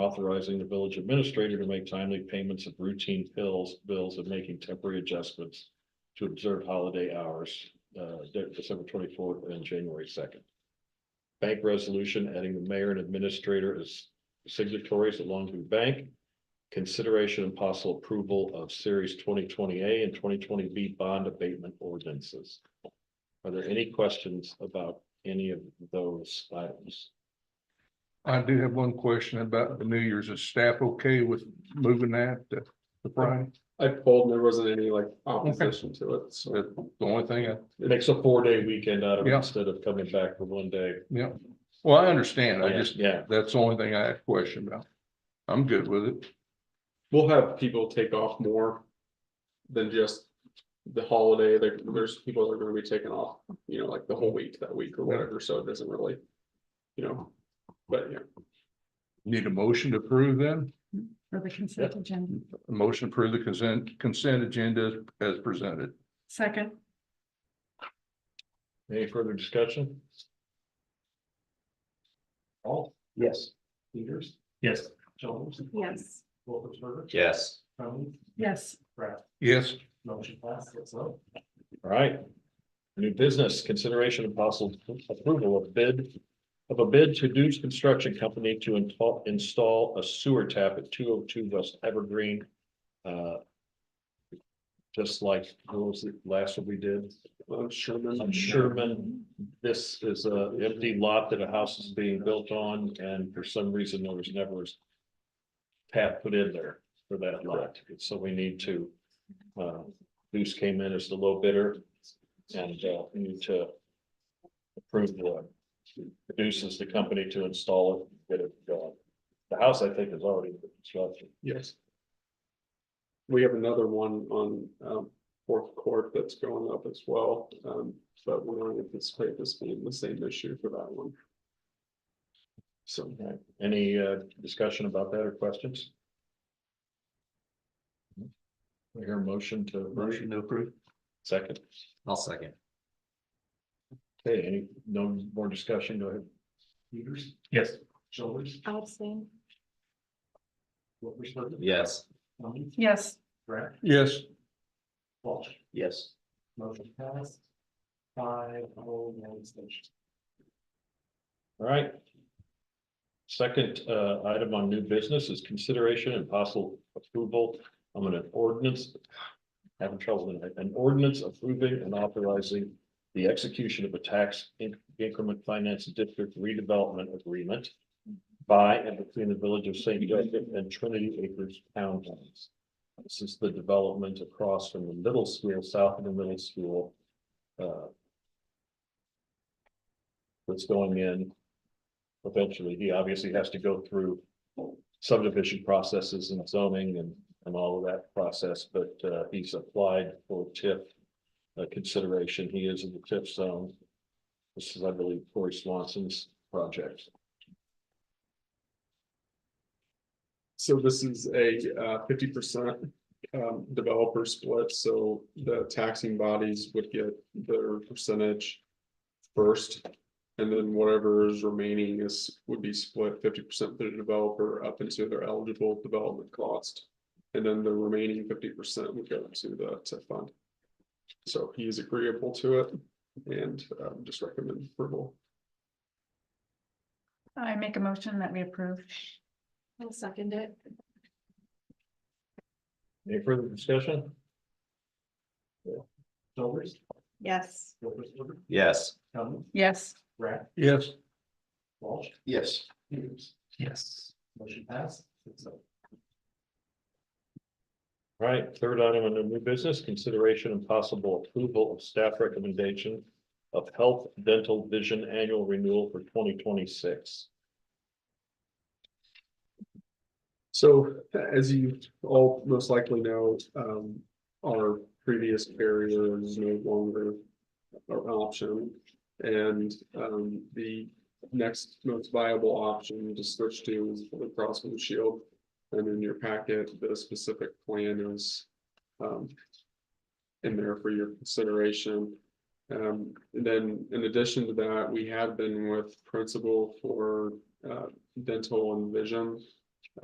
authorizing the village administrator to make timely payments of routine bills, bills and making temporary adjustments to observe holiday hours, uh, De- December twenty-fourth and January second. Bank resolution adding the mayor and administrator as signatories at Longview Bank. Consideration and possible approval of series twenty twenty A and twenty twenty B bond abatement ordinances. Are there any questions about any of those items? I do have one question about the New Year's. Is staff okay with moving that to the Friday? I pulled, and there wasn't any like opposition to it, so. That's the only thing I, It makes a four-day weekend out of it Yeah. instead of coming back for one day. yeah. Well, I understand. I Yeah, just, Yeah, that's the only thing I have a question about. I'm good with it. We'll have people take off more than just the holiday. There, there's people that are gonna be taking off, you know, like the whole week, that week or whatever, so it doesn't really, you know, but yeah. Need a motion to approve then? For the consent agenda. A motion to approve the consent, consent agenda as presented. Second, any further discussion? All? Yes. Peters? Yes. Jones? yes, Wolfensberger. Yes. Tony, yes, Brad, Yes, motion passed, six oh. All right. New business, consideration of possible approval of bid of a bid to Deuce Construction Company to install, install a sewer tap at two oh two West Evergreen. uh, Just like those last one we did Uh, Sherman. on Sherman. This is a empty lot that a house is being built on and for some reason there was never a tap put in there for that lot. So we need to, uh, Deuce came in as the low bidder and uh, we need to approve the produces the company to install it, get it going. The house, I think, is already constructed. Yes. We have another one on um fourth court that's going up as well, um but we don't anticipate this being the same issue for that one. So. Right. Any uh, discussion about that or questions? I hear a motion to. Motion to approve. Second. I'll second. Okay, any, no more discussion, go ahead. Peters. Yes. Shoulders, I'll abstain. Wolfensberger. Yes. Tony, yes, Brad, yes, Walsh, Yes. motion passed. Five oh one abstention. All right. Second uh item on new business is consideration and possible approval of an ordinance. Having trouble tonight, an ordinance approving and authorizing the execution of a tax in- increment finance district redevelopment agreement. By and between the village of St. Joseph and Trinity Acres Town Plans. This is the development across from the middle school, south of the middle school. uh, That's going in eventually, he obviously has to go through subdivision processes and zoning and, and all of that process, but, uh, he's applied for TIF uh, consideration. He is in the TIF zone. This is, I believe, Corey Swanson's project. So this is a uh, fifty percent um developer split, so the taxing bodies would get their percentage first. And then whatever is remaining is would be split fifty percent to the developer up into their eligible development cost. And then the remaining fifty percent would go to the TIF fund. So he is agreeable to it and um, just recommend approval. I make a motion that we approve. I'll second it. Any further discussion? Shoulders, Yes. Wolfensberger. Yes. Tony, Yes, Brad, yes. Walsh, Yes. Peters. Yes. Motion passed, six oh. All Right, third item on the new business, consideration and possible approval of staff recommendation of health, dental, vision annual renewal for twenty twenty-six. So as you all most likely know, um, our previous carrier is no longer our option. And, um, the next most viable option to switch to is Blue Cross Blue Shield. And in your packet, the specific plan is, um, in there for your consideration. Um, and then in addition to that, we have been with Principal for, uh, dental and vision